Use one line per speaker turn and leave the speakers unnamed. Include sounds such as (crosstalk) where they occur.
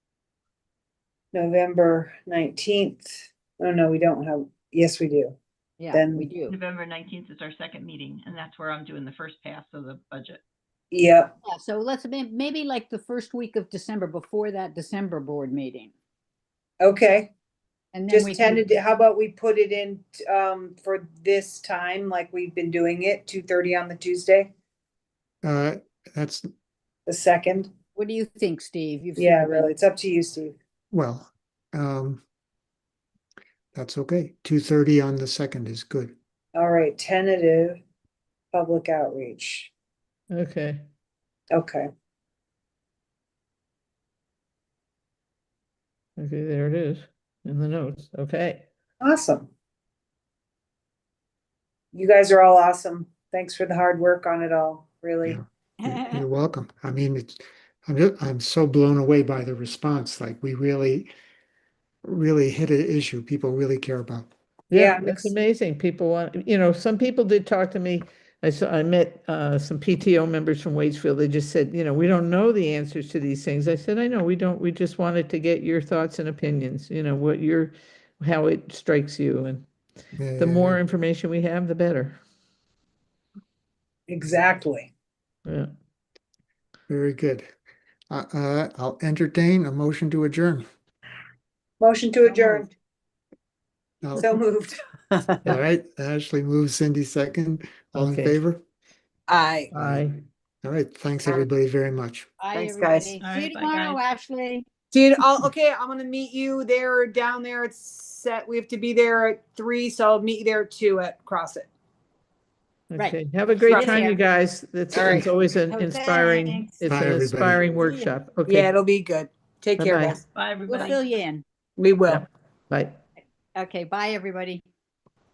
November nineteenth. Oh, no, we don't have, yes, we do.
Yeah,
Then-
we do.
November nineteenth is our second meeting, and that's where I'm doing the first pass of the budget.
Yep,
Yeah, So let's, may- maybe like the first week of December, before that December board meeting.
okay.
And then we
Just
can,
tended, to- how about we put it in, um, for this time, like we've been doing it, two thirty on the Tuesday,
Uh, that's,
the second?
what do you think, Steve? You've seen
Yeah,
the- (laughs)
really, it's up to you, Steve.
well, um, that's okay. Two thirty on the second is good.
All right, tentative public outreach.
Okay,
Okay,
okay, there it is in the notes. Okay,
awesome. You guys are all awesome. Thanks for the hard work on it all, really. (laughs)
Yeah. You're you're welcome. I mean, it's, I'm, ju- I'm so blown away by the response. Like we really, really hit an issue people really care about.
Yeah,
yeah,
mix-
that's amazing. People want, you know, some people did talk to me. I saw, I met uh, some PTO members from Waitsfield. They just said, you know, we don't know the answers to these things. I said, I know, we don't. We just wanted to get your thoughts and opinions, you know, what your, how it strikes you. And
Yeah, yeah,
the more
yeah.
information we have, the better.
Exactly.
Yeah.
Very good. Uh, uh, I'll entertain a motion to adjourn.
Motion to adjourn.
Now-
So moved.
All right, Ashley moves, Cindy second. All in
Okay.
favor?
Aye.
Aye.
All right, thanks
Aye.
everybody very much.
Bye,
Thanks, guys.
everybody.
All
See you
right, bye,
tomorrow,
guys.
Ashley.
Dude, I'll, okay, I'm gonna meet you there, down there, it's set, we have to be there at three, so I'll meet you there at two at CrossFit.
Right.
Okay, have a great
Right.
time, you guys. That's,
All right.
it's always an
Oh,
inspiring,
thanks.
it's
Bye,
an
everybody.
inspiring workshop.
Yeah,
Okay,
it'll be good. Take care,
Bye-bye.
guys.
Bye,
We'll
everybody.
fill you in.
We will.
Yeah. bye.
Okay, bye, everybody.